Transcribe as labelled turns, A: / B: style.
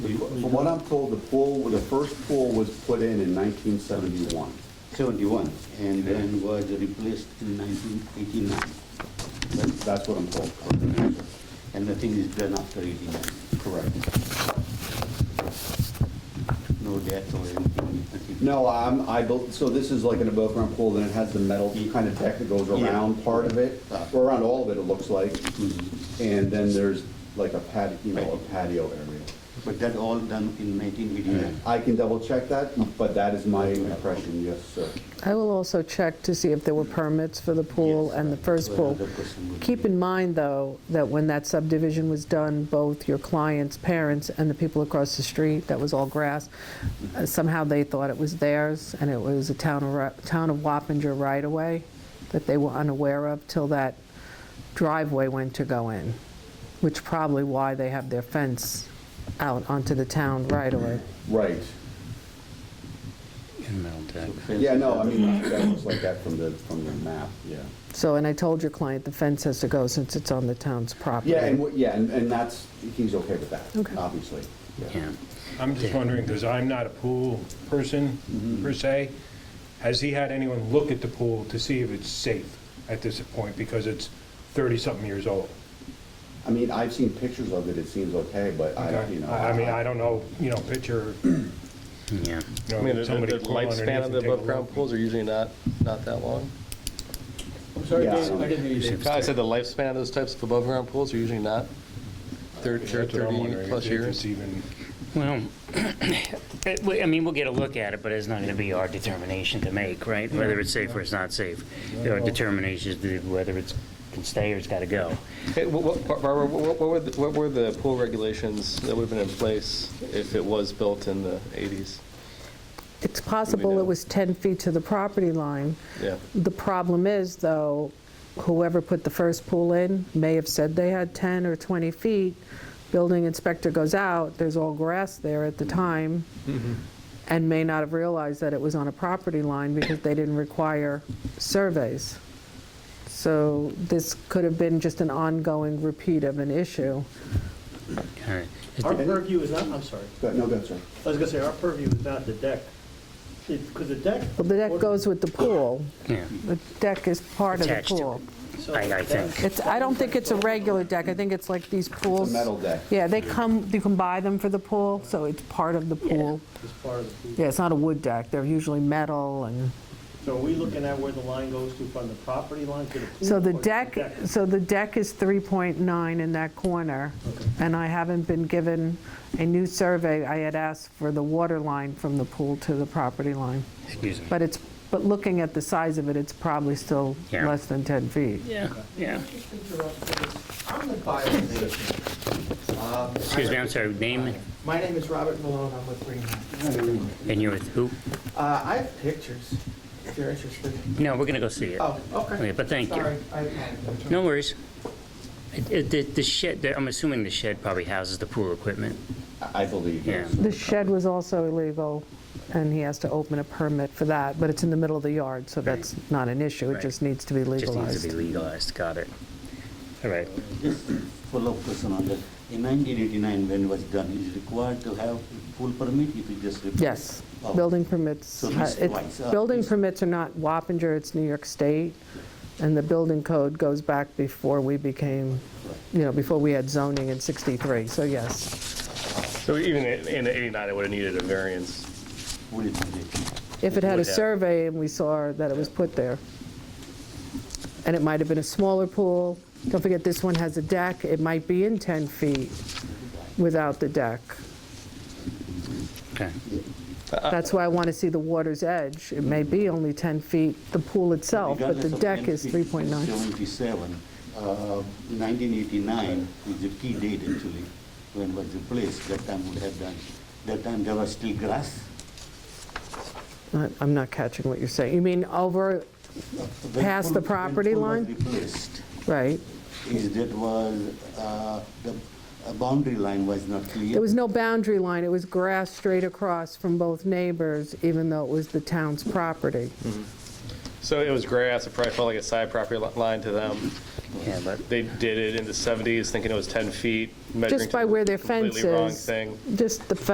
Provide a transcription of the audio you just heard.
A: From what I'm told, the pool, the first pool was put in in 1971.
B: 71, and then was replaced in 1989.
A: That's- That's what I'm told.
B: And nothing is done after 89.
A: Correct.
B: No death or anything. nothing.
A: No, I'm, I, bel- so this is like an above ground pool, then it has the metal kind of deck that goes
B: Yeah.
A: around part of it, or around all of it, it looks like. And then there's like a patio, you know, a patio area.
B: But that all done in 1989.
A: I can double check that, but that is my impression, yes, sir.
C: I will also check to see if there were permits for the pool
B: Yes,
C: and the
B: right.
C: first
B: Well,
C: pool.
B: another question would
C: Keep
B: be-
C: in mind, though, that when that subdivision was done, both your client's parents and the people across the street, that was all grass, uh, somehow they thought it was theirs, and it was a town of, Ro- town of Wappinger right-of-way that they were unaware of till that driveway went to go in, which probably why they have their fence out onto the town right-of-way.
A: Right. Yeah, no, I mean, that looks like that from the, from the map, yeah.
C: So, and I told your client the fence has to go since it's on the town's property.
A: Yeah, and, what- yeah, and and that's, he's okay with
C: Okay.
A: that, obviously.
D: Yeah.
E: I'm just wondering, because I'm not a pool person,
A: Mm-hmm.
E: per se, has he had anyone look at the pool to see if it's safe at this point, because it's 30-something years old?
A: I mean, I've seen pictures of it, it seems okay, but I, you know.
E: I I mean, I don't know, you know, picture,
D: Yeah.
E: you
F: I mean,
E: know,
F: the-
E: somebody
F: the
E: crawl underneath
F: lifespan of
E: and
F: the
E: take a
F: above-ground
E: look.
F: pools are usually not, not that long.
G: I'm sorry,
A: Yeah, I
G: Dave,
A: don't-
G: I didn't hear you. Dave.
F: I said the lifespan of those types of above-ground pools are usually not thirty
E: That's what I'm wondering,
F: plus
E: if it's
F: years.
E: even,
D: Well, it- we- I mean, we'll get a look at it, but it's not going to be our determination to make, right? Whether it's safe or it's not safe. Our determination is to whether it's can stay or it's got to go.
F: Hey, wha- wha- Barbara, wha- what were, the- what were the pool regulations that would have been in place if it was built in the eighties?
C: It's possible
F: know?
C: it was 10 feet to the property line.
F: Yeah.
C: The problem is, though, whoever put the first pool in may have said they had 10 or 20 feet. Building inspector goes out, there's all grass there at the time,
F: Mm-hmm.
C: and may not have realized that it was on a property line because they didn't require surveys. So this could have been just an ongoing repeat of an issue.
D: All right.
G: Our purview is not, I'm sorry,
A: Go- No, go ahead, sir.
G: I was gonna say, our purview is not the deck. Because the deck.
C: Well, the deck goes with the pool.
D: Yeah.
C: The deck is part of the
D: Attached to
C: pool.
G: So
D: I- I think.
G: that's-
C: It's, I don't think it's a regular deck, I think it's like these pools.
A: metal deck.
C: Yeah, they come, you can buy them for the pool, so it's part of the pool.
G: It's part of the pool.
C: Yeah, it's not a wood deck, they're usually metal and,
G: So are we looking at where the line goes to from the property line to the pool?
C: so
G: or
C: the
G: to
C: deck, so the deck is 3.9 in that corner. And I haven't been given a new survey, I had asked for the water line from the pool to the property line.
D: Excuse me.
C: But it's, but looking at the size of it, it's probably still
D: Yeah.
C: less than 10 feet.
D: Yeah, yeah.
H: I'm the buyer of the nation. Um,
D: Excuse me, I'm sorry, name
H: My name is Robert Malone, I'm with Green Mountain.
D: and you're with who?
H: Uh, I have pictures, if you're interested.
D: No, we're going to go see it.
H: Oh,
D: Okay,
H: okay.
D: but thank you.
H: Sorry, I apologize.
D: No worries. It- it- The the shed, I'm assuming the shed probably houses the pool equipment.
A: I- I believe,
D: Yeah.
A: yes.
C: The shed was also illegal, and he has to open a permit for that, but it's in the middle of the yard, so that's not an issue. It
D: Right.
C: just needs to be
D: Just needs to be
C: legalized.
D: legalized, got it. All right.
B: Just follow question on that. In 1989, when it was done, is required to have pool permit if you just replace?
C: Yes,
B: Oh.
C: building permits,
B: So he's
C: uh, it-
B: twice, uh,
C: building
B: he's-
C: permits are not Wappinger, it's New York State, and the building code goes back before we became, you know, before we had zoning in 63, so yes.
F: So even in in the eighty-nine, it would have needed a variance.
B: Pool is needed.
C: If it had a
F: Would have.
C: survey and we saw that it was put there, and it might have been a smaller pool, don't forget this one has a deck, it might be in 10 feet without the deck.
D: Okay.
C: That's why I want to see the water's edge. It may be only 10 feet, the pool itself, but the
B: Regardless of
C: deck is
B: 10 feet,
C: 3.9.
B: 77, uh, 1989 is the key date actually, when it was replaced, that time would have done. That time there was still grass,
C: I- I'm not catching what you're saying. You mean over,
B: When
C: Past
B: pool-
C: the
B: when
C: property
B: pool was
C: line?
B: replaced,
C: right?
B: is that was, uh, the uh, boundary line was not clear.
C: There was no boundary line, it was grass straight across from both neighbors, even though it was the town's property.
F: So it was grass, it probably felt like a side property li- line to them.
D: Yeah, but
F: They did it in the seventies, thinking it was ten feet, measuring
C: Just
F: to
C: by
F: the
C: where their fence
F: completely wrong
C: is.
F: thing.
C: Just the